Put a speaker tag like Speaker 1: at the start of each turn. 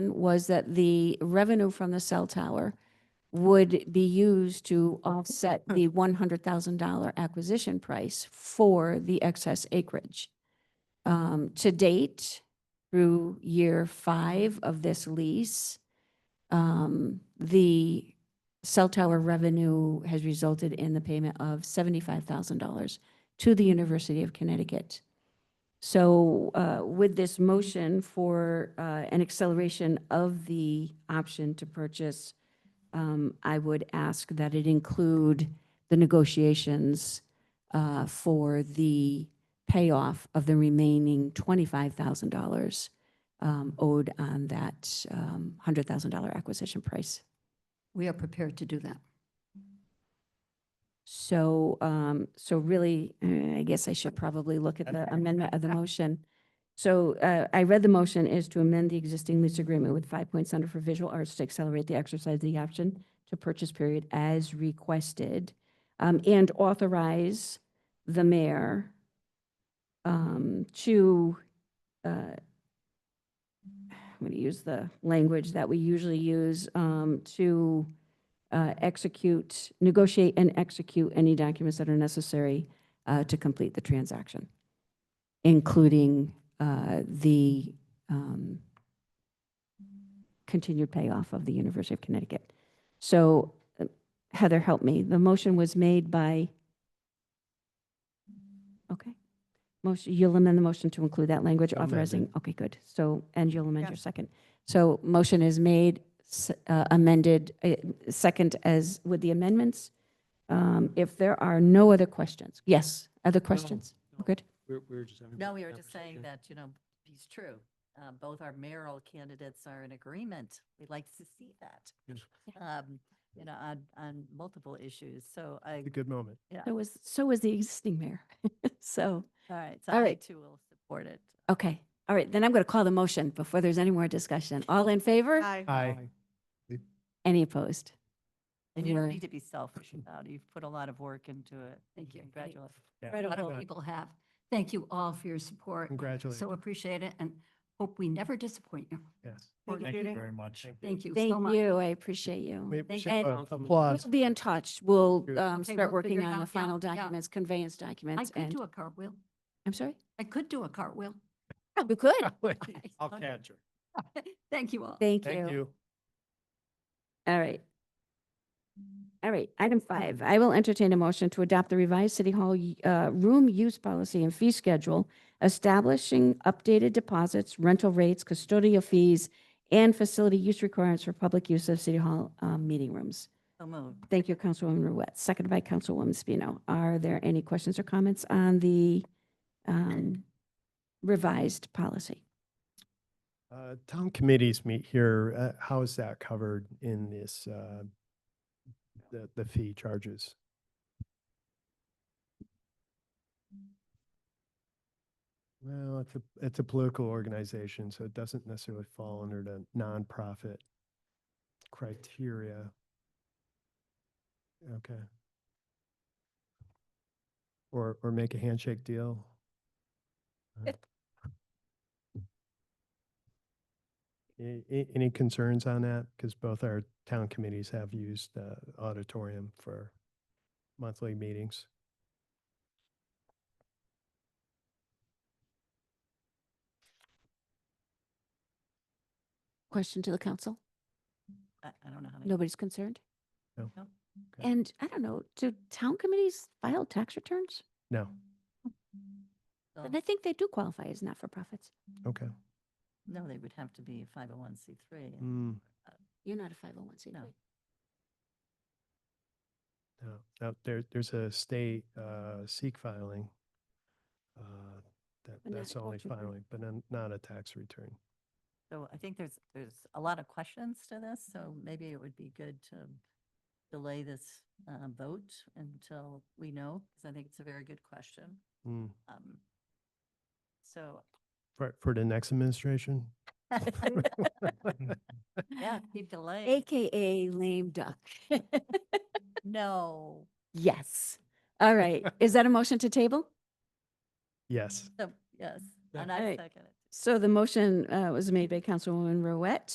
Speaker 1: was that the revenue from the cell tower would be used to offset the one hundred thousand dollar acquisition price for the excess acreage. Um, to date, through year five of this lease, um, the cell tower revenue has resulted in the payment of seventy-five thousand dollars to the University of Connecticut. So uh, with this motion for uh, an acceleration of the option to purchase, um, I would ask that it include the negotiations uh, for the payoff of the remaining $25,000 um, owed on that um, $100,000 acquisition price.
Speaker 2: We are prepared to do that.
Speaker 1: So, um, so really, eh, I guess I should probably look at the amendment of the motion. So, uh, I read the motion is to amend the existing lease agreement with Five Points Center for Visual Arts to accelerate the exercise of the option to purchase period as requested, um, and authorize the mayor, um, to, uh, I'm going to use the language that we usually use, um, to, uh, execute, negotiate and execute any documents that are necessary uh, to complete the transaction, including uh, the um, continued payoff of the University of Connecticut. So uh, Heather, help me. The motion was made by, okay. Motion, you'll amend the motion to include that language
Speaker 3: Amended.
Speaker 1: authorizing, okay, good. So, and you'll amend your second. So motion is made, s- uh, amended, uh, second as with the amendments. Um, If there are no other questions, yes, other questions?
Speaker 3: no.
Speaker 1: Good.
Speaker 3: We're, we're just having.
Speaker 4: No, we were just saying
Speaker 3: conversation.
Speaker 4: that, you know, he's true. Uh, Both our mayoral candidates are in agreement. We'd like to see that.
Speaker 3: Yes.
Speaker 4: um, You know, on, on multiple issues. So I,
Speaker 3: It's a good moment.
Speaker 4: yeah,
Speaker 1: So was, so was the existing mayor. So,
Speaker 4: all right, so
Speaker 1: all
Speaker 4: I
Speaker 1: right.
Speaker 4: too will support it.
Speaker 1: okay, all right, then I'm going to call the motion before there's any more discussion. All in favor?
Speaker 3: Aye.
Speaker 1: Any opposed?
Speaker 4: And you don't
Speaker 1: Right.
Speaker 4: need to be selfish about it. You've put a lot of work into it. Thank you. Congratulations.
Speaker 2: A lot
Speaker 3: Yeah.
Speaker 2: of people have. Thank you all for your support.
Speaker 3: Congratulations.
Speaker 2: So appreciate it and hope we never disappoint you.
Speaker 3: Yes.
Speaker 2: Thank
Speaker 5: Thank you very much.
Speaker 2: Thank you so
Speaker 1: Thank
Speaker 2: much.
Speaker 1: you, I appreciate you.
Speaker 3: We
Speaker 2: Thank
Speaker 3: should,
Speaker 1: you.
Speaker 3: uh,
Speaker 1: We'll
Speaker 3: Applause.
Speaker 1: be in touch. We'll
Speaker 3: Good.
Speaker 1: um,
Speaker 2: Okay,
Speaker 1: start
Speaker 2: we'll figure
Speaker 1: working
Speaker 2: it
Speaker 1: on the
Speaker 2: out.
Speaker 1: final
Speaker 2: Yeah, yeah.
Speaker 1: documents, conveyance
Speaker 2: I
Speaker 1: documents,
Speaker 2: could
Speaker 1: and,
Speaker 2: do a cartwheel.
Speaker 1: I'm sorry?
Speaker 2: I could do a cartwheel.
Speaker 1: Yeah, Oh, We could.
Speaker 3: I'll catch her.
Speaker 2: Thank you all.
Speaker 1: Thank
Speaker 3: Thank
Speaker 1: you.
Speaker 3: you.
Speaker 1: All right. All right, item five, I will entertain a motion to adopt the revised City Hall y- uh, room use policy and fee schedule, establishing updated deposits, rental rates, custodial fees, and facility use requirements for public use of City Hall um, meeting rooms.
Speaker 4: So moved.
Speaker 1: Thank you, Councilwoman Ruette, seconded by Councilwoman Spino. Are there any questions or comments on the um, revised policy?
Speaker 3: Uh, Town committees meet here. Uh, How is that covered in this, uh, the, the fee charges? Well, it's a, it's a political organization, so it doesn't necessarily fall under the nonprofit criteria. Okay. Or, or make a handshake deal. A- a- Any concerns on that? Because both our town committees have used the auditorium for monthly meetings.
Speaker 1: Question to the council?
Speaker 4: I I don't know how to.
Speaker 1: Nobody's concerned?
Speaker 3: No.
Speaker 4: No.
Speaker 3: Okay.
Speaker 1: And I don't know, do town committees file tax returns?
Speaker 3: No,
Speaker 1: And I think they do qualify as not-for-profits.
Speaker 3: okay.
Speaker 4: No, they would have to be 501c3. and-
Speaker 3: Mm,
Speaker 1: You're not a 501c3.
Speaker 4: No.
Speaker 3: No, no, there, there's a state, uh, seek filing. uh, That,
Speaker 1: But not
Speaker 3: that's
Speaker 1: a
Speaker 3: only
Speaker 1: tax return.
Speaker 3: filing, but then not a tax return.
Speaker 4: So I think there's, there's a lot of questions to this, so maybe it would be good to delay this uh, vote until we know, because I think it's a very good question.
Speaker 3: Mm,
Speaker 4: Um, So,
Speaker 3: For, for the next administration?
Speaker 4: yeah, keep delaying.
Speaker 1: AKA lame duck.
Speaker 4: No.
Speaker 1: Yes. All right. Is that a motion to table?
Speaker 3: Yes.
Speaker 4: So, yes,
Speaker 3: Yeah.
Speaker 4: and I
Speaker 1: Alright.
Speaker 4: second it.
Speaker 1: So the motion uh, was made by Councilwoman Ruette,